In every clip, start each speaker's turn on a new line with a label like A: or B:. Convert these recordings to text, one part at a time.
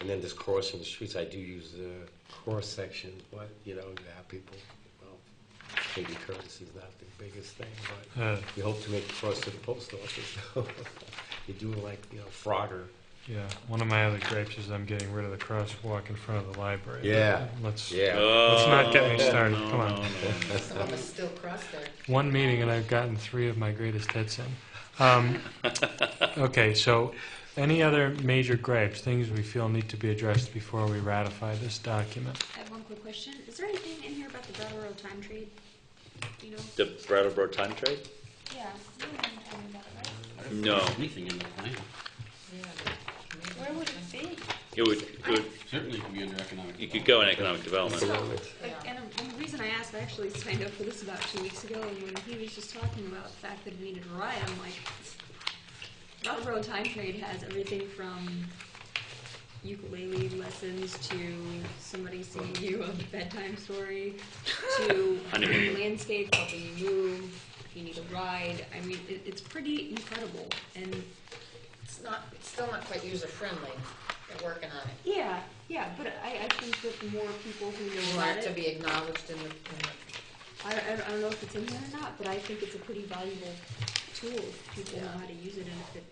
A: And then just crossing the streets, I do use the cross section, but, you know, you have people, well, maybe courtesy is not the biggest thing, but
B: Uh,
A: you hope to make it cross to the post office. You do like, you know, Frogger.
B: yeah, one of my other gripes is I'm getting rid of the crosswalk in front of the library.
A: Yeah.
B: Let's,
A: Yeah.
B: let's not get
C: Oh,
B: me started,
C: no,
B: come
C: no,
B: on.
C: no.
D: Some of us still cross there.
B: One meeting and I've gotten three of my greatest hits in. Um, okay, so any other major gripes, things we feel need to be addressed before we ratify this document?
E: I have one quick question. Is there anything in here about the Brattleboro time trade? Do You know?
C: The Brattleboro time trade?
E: Yeah. you were gonna tell me about it, right?
C: No,
F: Anything in the plan.
D: Yeah.
E: Where would it be?
C: it would, it would,
F: Certainly can be under economic.
C: you could
F: development.
C: go in economic development.
E: So, like, and, um, and the reason I asked, I actually signed up for this about two weeks ago, and when he was just talking about the fact that we needed a ride, I'm like, Brattleboro time trade has everything from ukulele lessons to somebody singing you a bedtime story to
C: Honeymoon.
E: landscape helping you move. If you need a ride, I mean, it, it's pretty incredible. And
D: It's not, it's still not quite user-friendly. They're working on it.
E: yeah, yeah, but I, I think that the more people who know
D: We
E: about
D: want it
E: it,
D: to be acknowledged in the, in the,
E: I, I don't- I don't know if it's in there or not, but I think it's a pretty valuable tool if people know how to use it and if it,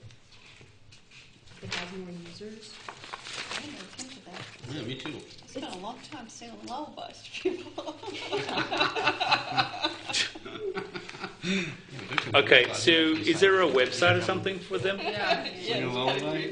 E: if it has more users.
G: I didn't even think of that.
F: Yeah, me too.
G: I spent a long time singing lullabies to people.
F: Yeah, but there's a
C: Okay,
F: lot of
C: so is
F: design.
C: there a website or something for them?
D: yeah.
F: Sing along line?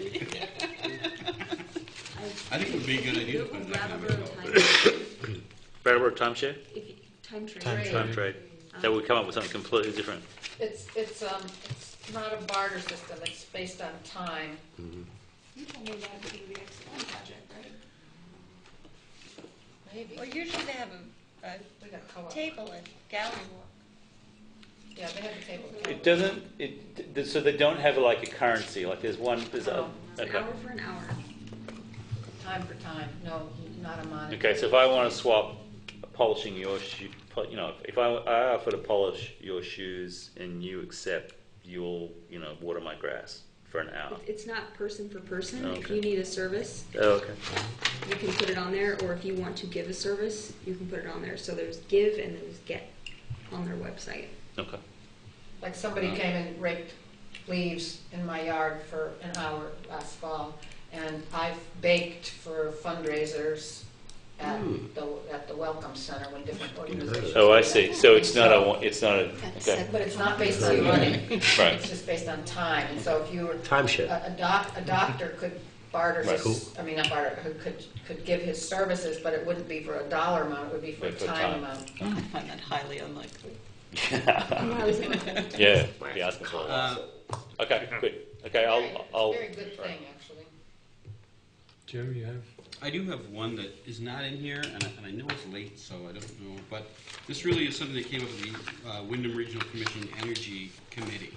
F: I think it would be a good idea to put
E: Google
F: an economic
E: Brattleboro
F: development.
E: time,
C: Brattleboro timeshare,
E: if you, time trade.
B: Time
D: Right.
B: trade.
C: time trade. That would come up with something completely different.
D: It's, it's, um, it's not a barter system. It's based on time.
E: You told me that at the beginning of the X1 project, right?
D: Maybe.
G: Well, usually they have a, a
D: We got co-op.
G: table at Gallery Walk.
D: Yeah, they have a table.
C: It doesn't, it, th- so they don't have like a currency, like there's one, there's a,
E: It's an
C: okay.
E: hour for an hour.
D: Time for time. No, not a monitor.
C: Okay, so if I want to swap polishing your shoe, po- you know, if I, I offer to polish your shoes and you accept, you'll, you know, water my grass for an hour.
E: It- It's not person for person. If
C: Okay.
E: you need a service,
C: Oh, okay.
E: you can put it on there, or if you want to give a service, you can put it on there. So there's give and there's get on their website.
C: Okay.
D: Like somebody came and raked leaves in my yard for an hour last fall, and I've baked for fundraisers at
C: Hmm.
D: the, at the Welcome Center when different organizations.
C: Oh, I see. So it's not a, one- it's not a, okay,
D: But it's not based on money, it's
C: right.
D: just based on time, and so if you were, a,
A: Timeshare.
D: a doc, a doctor could barter
C: Right.
D: his, I mean, not barter, who could, could give his services, but it wouldn't be for a dollar amount, it would be for a
C: Right, for
D: time
C: time.
D: amount.
G: I find that highly unlikely.
C: Yeah, be asking for a
D: Um,
C: lot.
F: Uh,
C: Okay, good. Okay, I'll, I'll,
D: Very good thing, actually.
B: Jim, you have?
F: I do have one that is not in here, and I, and I know it's late, so I don't know, but this really is something that came up with the uh, Wyndham Regional Commission Energy Committee.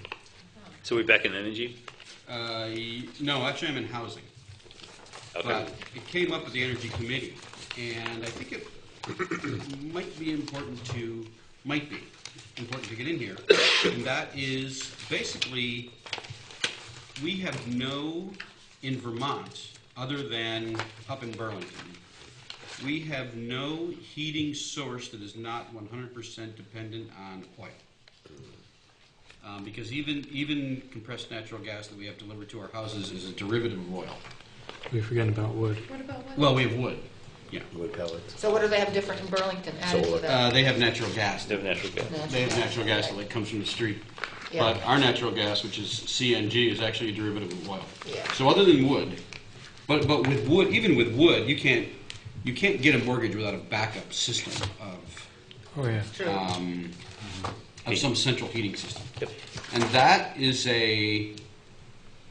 C: so we're back in energy?
F: Uh, y- no, actually, I'm in housing.
C: Okay.
F: But it came up at the Energy Committee, and I think it might be important to, might be important to get in here. And that is basically, we have no, in Vermont, other than up in Burlington, we have no heating source that is not 100% dependent on oil. Um, because even, even compressed natural gas that we have delivered to our houses is a derivative of oil.
B: We forgetting about wood.
F: Well, we have wood. Yeah.
A: Wood pellets.
D: So what do they have different in Burlington added to
A: Solar.
D: that?
F: Uh, they have natural gas.
C: They have natural gas.
F: They have natural gas that like, comes from the street.
D: Yeah.
F: But our natural gas, which is CNG, is actually a derivative of oil.
D: Yeah.
F: So other than wood, but, but with wood, even with wood, you can't, you can't get a mortgage without a backup system of,
B: Oh, yeah.
D: True.
F: um, of some central heating system.
C: Yep.
F: And that is a,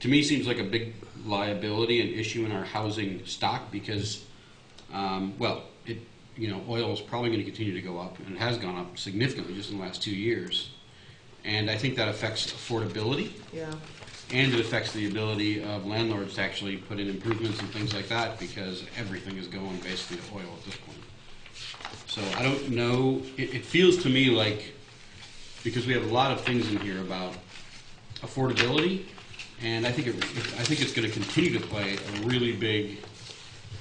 F: to me, seems like a big liability and issue in our housing stock because, um, well, it, you know, oil is probably going to continue to go up and it has gone up significantly just in the last two years. And I think that affects affordability
D: Yeah.
F: and it affects the ability of landlords to actually put in improvements and things like that because everything is going basically to oil at this point. So I don't know, it, it feels to me like, because we have a lot of things in here about affordability, and I think it, I think it's gonna continue to play a really big